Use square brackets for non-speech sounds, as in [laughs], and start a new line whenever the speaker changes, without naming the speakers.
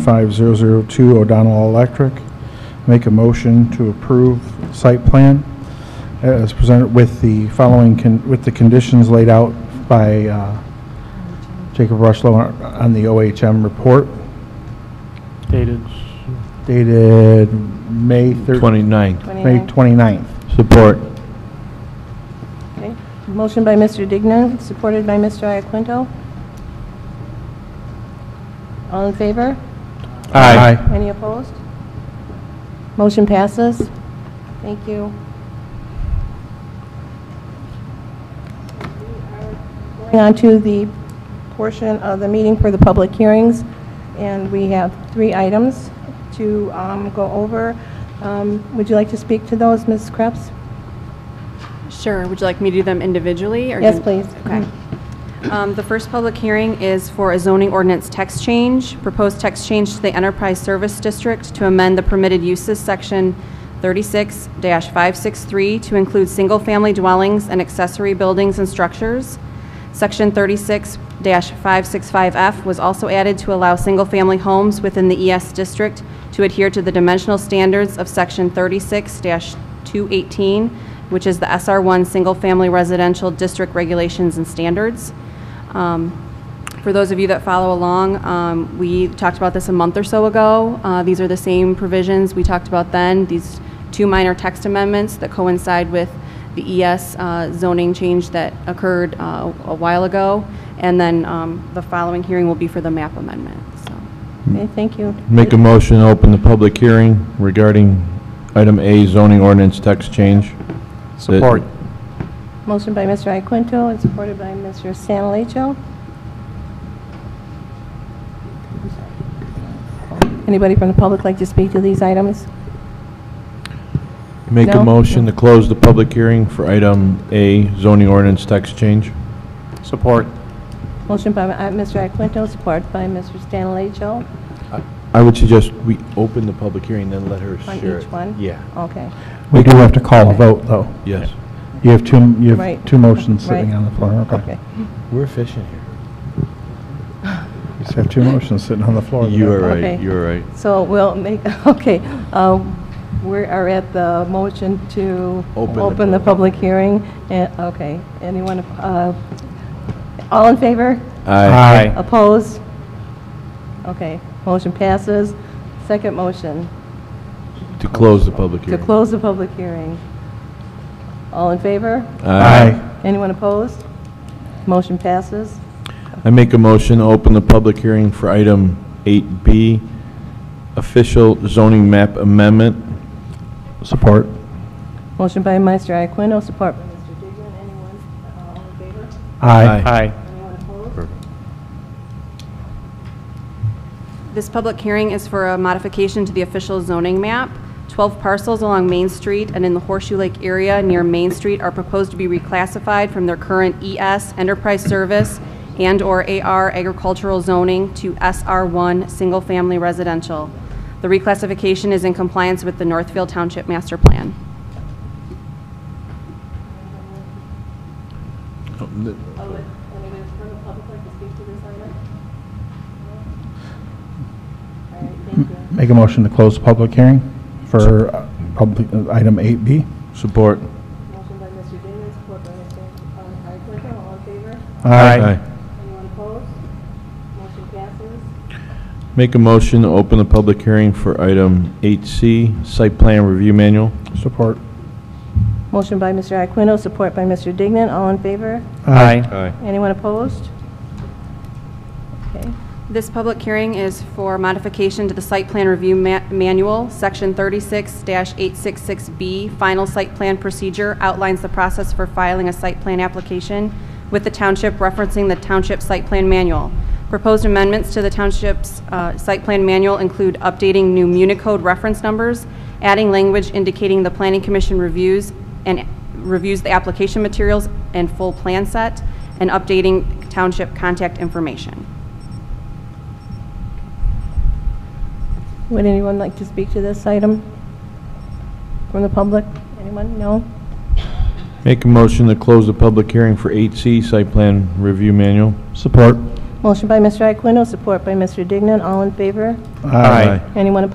5002 O'Donnell Electric. Make a motion to approve site plan as presented with the following, con- with the conditions laid out by uh, Jacob Rushlow on- on the OHM report
Dated
dated May 13th,
29th.
May
29.
29th.
Support.
Okay. Motion by Mr. Dignan, supported by Mr. Iaquinto. All in favor? Any opposed? Motion passes. Thank you. Going on to the portion of the meeting for the public hearings, and we have three items to um, go over. Um, Would you like to speak to those, Ms. Krebs?
Sure. Would you like me to do them individually? or
Yes,
do-
please. Mm-hmm.
Okay. Um, The first public hearing is for a zoning ordinance text change, proposed text change to the Enterprise Service District to amend the permitted uses section 36-563 to include single-family dwellings and accessory buildings and structures. Section 36-565F was also added to allow single-family homes within the ES district to adhere to the dimensional standards of Section 36-218, which is the SR1 Single Family Residential District Regulations and Standards. Um, for those of you that follow along, um, we talked about this a month or so ago. Uh, These are the same provisions we talked about then, these two minor text amendments that coincide with the ES uh, zoning change that occurred uh, a while ago. And then um, the following hearing will be for the map amendment, so.
Okay, thank you.
Make a motion to open the public hearing regarding item A zoning ordinance text change.
support.
Motion by Mr. Iaquinto and supported by Mr. Sanalacho. Anybody from the public like to speak to these items?
Make
No?
a motion to close the public hearing for item A zoning ordinance text change.
Support.
Motion by uh, Mr. Iaquinto, supported by Mr. Sanalacho
I would suggest we open the public hearing, then let her
on
share it.
each one?
Yeah,
Okay.
We do have to call a vote, though.
yes.
You have two, you have
Right.
two motions sitting
Right.
on the floor, okay.
Okay.
We're efficient here.
You just have two motions sitting on the floor.
You are right,
Okay.
you are right.
So we'll make, [laughs] okay, uh, we are at the motion to
Open the
open the
public.
public hearing. Eh, Okay, anyone, uh, all in favor?
Aye.
Opposed? Okay, motion passes. Second motion,
To close the public
to
hearing.
close the public hearing. All in favor?
Aye.
Anyone opposed? Motion passes.
I make a motion to open the public hearing for item 8B, official zoning map amendment.
Support.
Motion by Meister Iaquinto, support by Mr. Dignan. Anyone, uh, all in favor?
Aye.
Aye.
Anyone opposed?
This public hearing is for a modification to the official zoning map. 12 parcels along Main Street and in the Horseshoe Lake area near Main Street are proposed to be reclassified from their current ES Enterprise Service and/or AR Agricultural Zoning to SR1 Single Family Residential. The reclassification is in compliance with the Northfield Township Master Plan.
Anybody from the public like to speak to this item? No? All right, thank you.
Make a motion to close the public hearing for uh, public, item 8B.
Support.
Motion by Mr. Dignan, support by Mr. Iaquinto. All in favor?
Aye.
Anyone opposed? Motion passes.
Make a motion to open the public hearing for item 8C, site plan review manual.
Support.
Motion by Mr. Iaquinto, support by Mr. Dignan. All in favor?
Aye.
Aye.
Anyone opposed? Okay.
This public hearing is for modification to the Site Plan Review Ma- Manual. Section 36-866B, Final Site Plan Procedure, outlines the process for filing a site plan application with the township referencing the Township Site Plan Manual. Proposed amendments to the Township's uh, Site Plan Manual include updating new Municode reference numbers, adding language indicating the Planning Commission reviews and reviews the application materials and full plan set, and updating township contact information.
Would anyone like to speak to this item from the public? Anyone? No?
Make a motion to close the public hearing for 8C, site plan review manual.
Support.
Motion by Mr. Iaquinto, support by Mr. Dignan. All in favor?
Aye.
Anyone opposed?